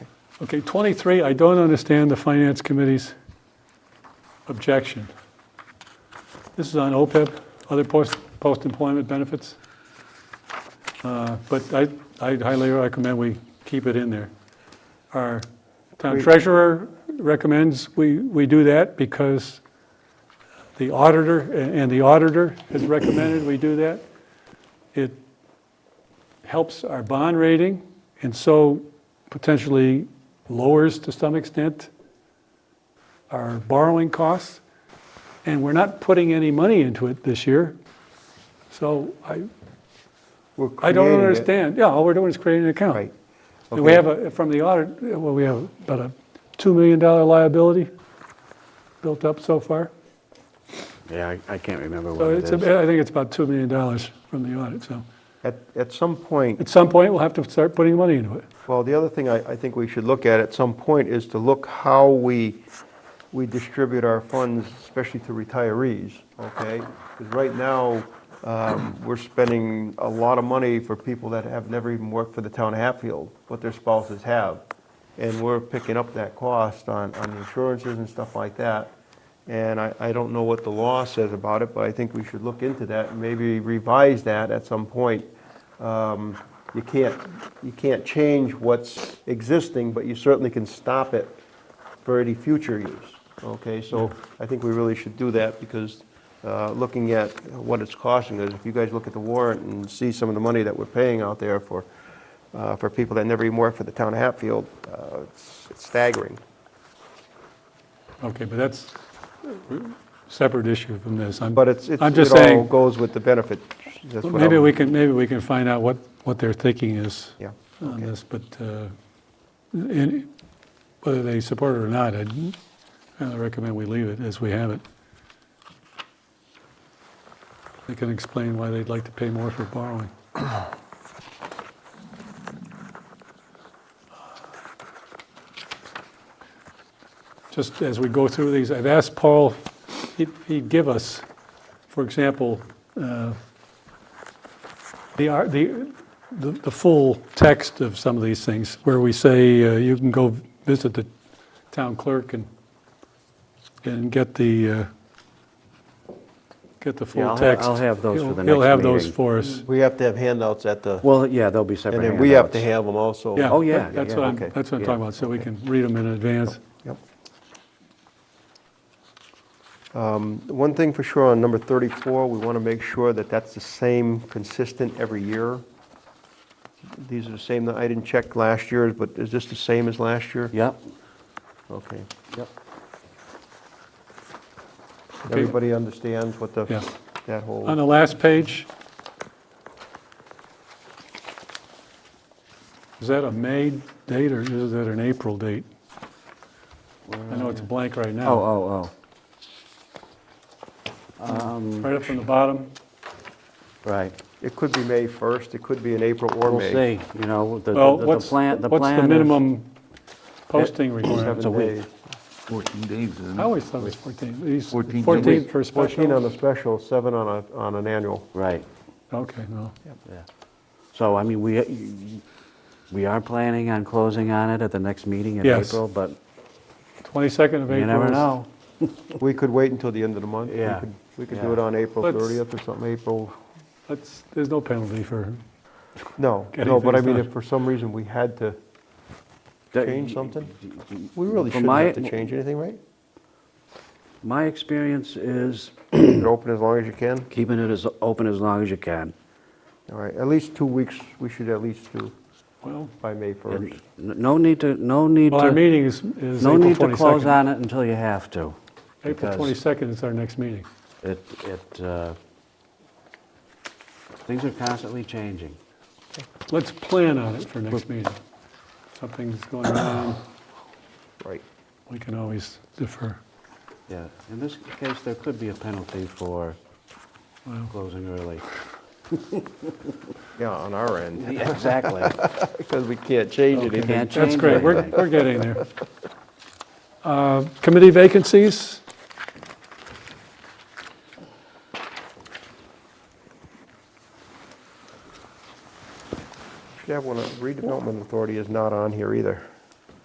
Okay, 23, I don't understand the Finance Committee's objection. This is on OPEB, other post- post-employment benefits. Uh, But I I highly recommend we keep it in there. Our town Agreed. treasurer recommends we we do that because the auditor, and the auditor has recommended we do that. It helps our bond rating, and so potentially lowers to some extent our borrowing costs. And we're not putting any money into it this year. So I, We're I don't creating it. understand. Yeah, all we're doing is creating an account. Right. And we Okay. have, a from the audit, well, we have about a $2 million liability built up so far. Yeah, I- I can't remember So what it it's, is. a- I think it's about $2 million from the audit, so. At, at some point, At some point, we'll have to start putting money into it. well, the other thing I, I think we should look at at some point is to look how we, we distribute our funds, especially to retirees, okay? Because right now, um, we're spending a lot of money for people that have never even worked for the town of Hatfield, what their spouses have. And we're picking up that cost on, on the insurances and stuff like that. And I, I don't know what the law says about it, but I think we should look into that and maybe revise that at some point. Um, You can't, you can't change what's existing, but you certainly can stop it for any future use, okay? So I think we really should do that because uh, looking at what it's costing us, if you guys look at the warrant and see some of the money that we're paying out there for, uh, for people that never even worked for the town of Hatfield, uh, it's it's staggering. Okay, but that's a separate issue from this. I'm- But it's, it's- I'm just it all saying, goes with the benefit. That's what maybe I'm- we can, maybe we can find out what, what their thinking is Yeah, on okay. this, but uh, in- whether they support it or not, I'd kinda recommend we leave it as we have it. They can explain why they'd like to pay more for borrowing. Just as we go through these, I've asked Paul, he'd- he'd give us, for example, uh, the, ar- the, the, the full text of some of these things, where we say uh, you can go visit the town clerk and, and get the, uh, get the Yeah, full I'll ha- text. I'll have those for He'll- the He'll next have those meeting. for us. We have to have handouts at the, Well, yeah, there'll be separate and handouts. then we have to have them also. Yeah. Oh, yeah, that- That's yeah, what I'm, okay, that's what I'm yeah, talking about, so we can read them in advance. Yep. Um, One thing for sure, on number 34, we want to make sure that that's the same, consistent every year. These are the same, I didn't check last year's, but is this the same as last year? Yep, Okay. yep. Everybody understands what the, Yeah. that whole. On the last page, is that a May date or is that an April date? I know it's a blank right Oh, now. oh, oh. Um, Right up from the bottom, oh, right. It could be May 1st, it could be in April or We'll May. see, you know, the, Well, the- the what's, plan, the plan is... what's the minimum posting requirement? It's a Seven week. days. 14 days, isn't I it? always thought it was 14. These- 14 14 days. for a 14 special? on the special, seven on a, on an annual. Right, Okay, no. yeah. So, I mean, we, we are planning on closing on it at the next meeting in Yes. April, but 22nd of April. you never is- know. We could wait until the end of the month. We Yeah, could- We could yeah. do it on April Let's- 30th or something, April, That's, there's no penalty for, no, Getting no, but I things mean, done. if for some reason we had to That- change something, we really From shouldn't my- have to change anything, right? My experience is You can open as long as you can. keeping it as open as long as you can. All right, at least two weeks, we should at least do well, by May And 1st. n- No need to, no need to... well, our meeting is is No April 22nd. need to close on it until you have to. April because 22nd is our next meeting. It, it, uh, things are constantly changing. Let's plan on it for next meeting. Something's going on, Right. we can always defer. Yeah, in this case, there could be a penalty for Well, closing early. Yeah, on our end, Yeah, Exactly. because we can't change Okay. anything. Can't That's change great, we're, anything. we're getting there. Uh, Committee vacancies? uh, Should have one, on- redevelopment authority is not on here either.